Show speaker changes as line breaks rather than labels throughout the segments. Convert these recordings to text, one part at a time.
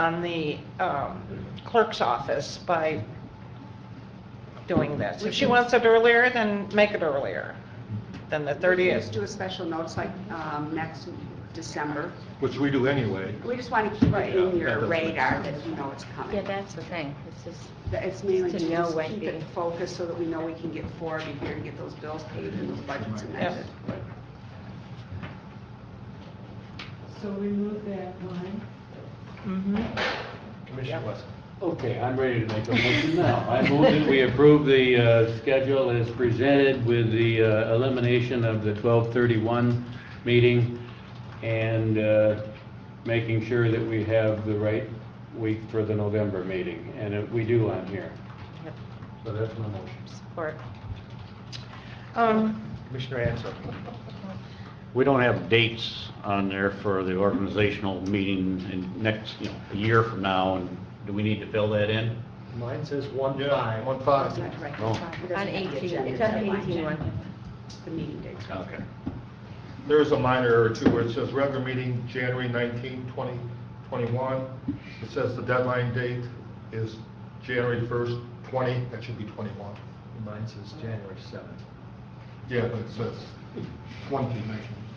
on the um, clerk's office by doing this. If she wants it earlier, then make it earlier than the
We just
30th.
do a special notice like um, next December.
Which we do anyway.
We just want to keep it
Right.
in
That
your
doesn't make
radar
sense.
that you know it's
Yeah,
coming.
that's the thing, it's just,
That It's mainly
To
to just
know when
keep it
the-
focused so that we know we can get forward in here and get those bills paid and those budgets amended.
So we move that line.
Mhm.
Commissioner Wesson.
Okay, I'm ready to make a motion now. I move that we approve the uh, schedule as presented with the uh, elimination of the 12:31 meeting and uh, making sure that we have the right week for the November meeting, and it- we do on here.
Yep.
So that's my motion.
Support. Um,
Commissioner Ansel.
We don't have dates on there for the organizational meeting in next, you know, a year from now, and do we need to fill that in?
Mine says one
Yeah,
five.
one
That's
five.
not correct.
No.
It doesn't
on
have the
18,
agenda
it's on
deadline.
18 one.
The meeting date.
Okay.
There is a minor error too, where it says regular meeting, January 19, 2021. It says the deadline date is January 1st, 20, that should be 21.
Mine says January seventh.
Yeah, but it says 20, 19,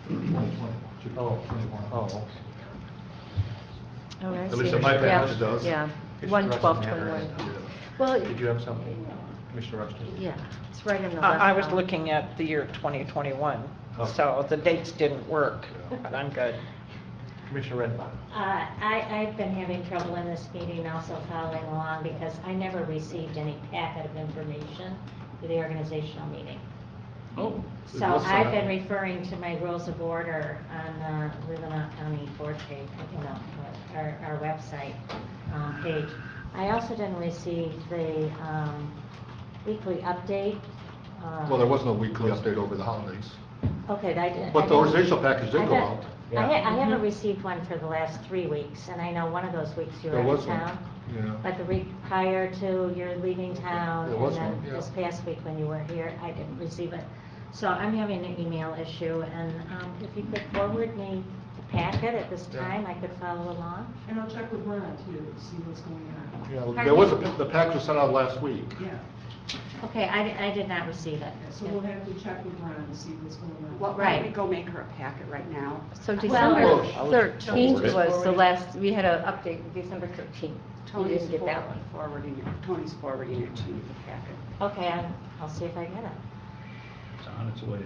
2020, should be
Oh,
21.
oh, okay.
oh, I
At
see.
least in my
Yeah,
page it does.
Yeah,
It's
one,
Russian
twelve,
handwriting.
twenty-one.
Yeah.
Well,
Did you have something, Commissioner Rushton?
yeah, it's right in the left.
Uh, I I was
column.
looking at the year 2021,
Oh.
so the dates didn't work, but I'm good.
Commissioner Redpath.
Uh, I, I've been having trouble in this meeting also following along because I never received any packet of information for the organizational meeting.
Oh.
So I've been referring to my rules of order on the Rivermont County Board page, you know, our, our website um, page. I also didn't receive the um, weekly update. uh,
Well, there was no weekly update over the holidays.
Okay, I didn't.
But the
I didn't-
organizational package did
I
go
bet-
out.
I ha- I
Mm-hmm.
haven't received one for the last three weeks, and I know one of those weeks you were
There
out
was
of
one,
town.
yeah.
But the week prior to your leaving town,
There was
and
one, yeah.
then this past week when you were here, I didn't receive it. So I'm having an email issue, and um, if you could forward me the packet at this
Yeah.
time, I could follow along.
And I'll check with Ron too, to see what's going on.
Yeah, there was, a the package was sent out last week.
Yeah,
Okay, I di- I did not receive it.
so we'll have to check with Ron to see what's going on.
Well, why don't we
Right.
go make her a packet right now?
So
Well,
December
I was-
thirteenth
Forward it.
was the last, we had an update, December thirteenth. You
Tony's
didn't get that
for-
one.
forwarding it, Tony's forwarding it to you, the packet.
Okay, I'll- I'll see if I get it.
It's on its way.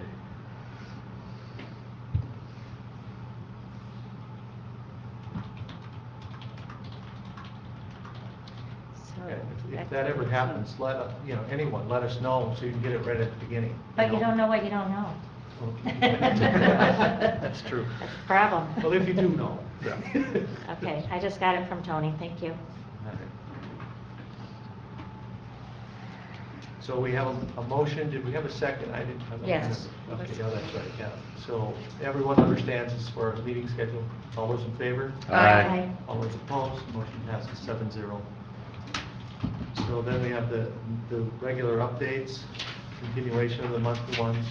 So
Yeah, if- If
Oh, that's-
that ever happens, let, us- you know, anyone, let us know so you can get it right at the beginning.
But you don't know what you don't know.
That's true.
That's the problem.
Well, if you do know.
Okay, I just got it from Tony, thank you.
So we have a- a motion, did we have a second? I didn't. I don't
Yes.
remember. Okay, yeah, that's right, yeah. So everyone understands as far as meeting schedule, all those in favor?
Aye.
All those opposed, motion passes seven zero. So then we have the, the regular updates, continuation of the monthly ones.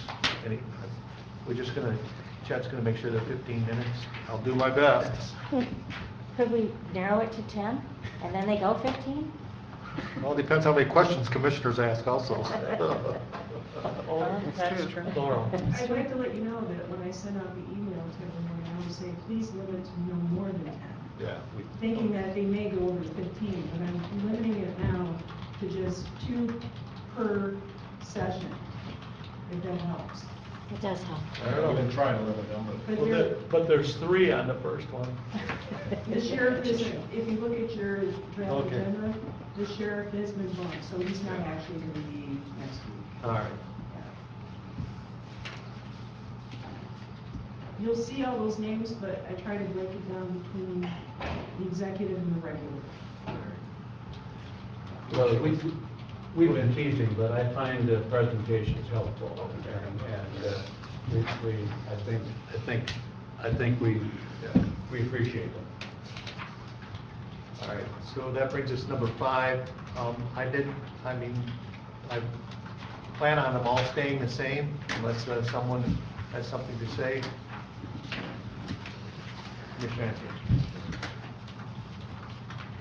Any, we're just gonna, Chad's gonna make sure they're fifteen minutes.
I'll do my best.
Could we narrow it to 10, and then they go 15?
Well, it depends how many questions commissioners ask also.
Laurel?
That's true.
Laurel?
I'd like to let you know that when I sent out the email to everyone, I was saying, please limit to no more than ten.
Yeah. we-
Thinking that they may go over fifteen, but I'm limiting it now to just two per session, if that helps.
It does help.
I don't know, I've been trying to limit them,
But there,
But there's three on the first one.
the sheriff is, if you look at your draft
Okay.
agenda, the sheriff has been bumped, so he's not actually gonna be next week.
All right.
You'll see all those names, but I try to break it down between the executive and the regular.
Well, we- we've been teasing, but I find the presentations helpful, and, and uh, we, we, I think, I think, I think we, we appreciate them.
All right, so that brings us to number five. Um, I didn't, I mean, I plan on them all staying the same unless uh, someone has something to say. Commissioner Ansel.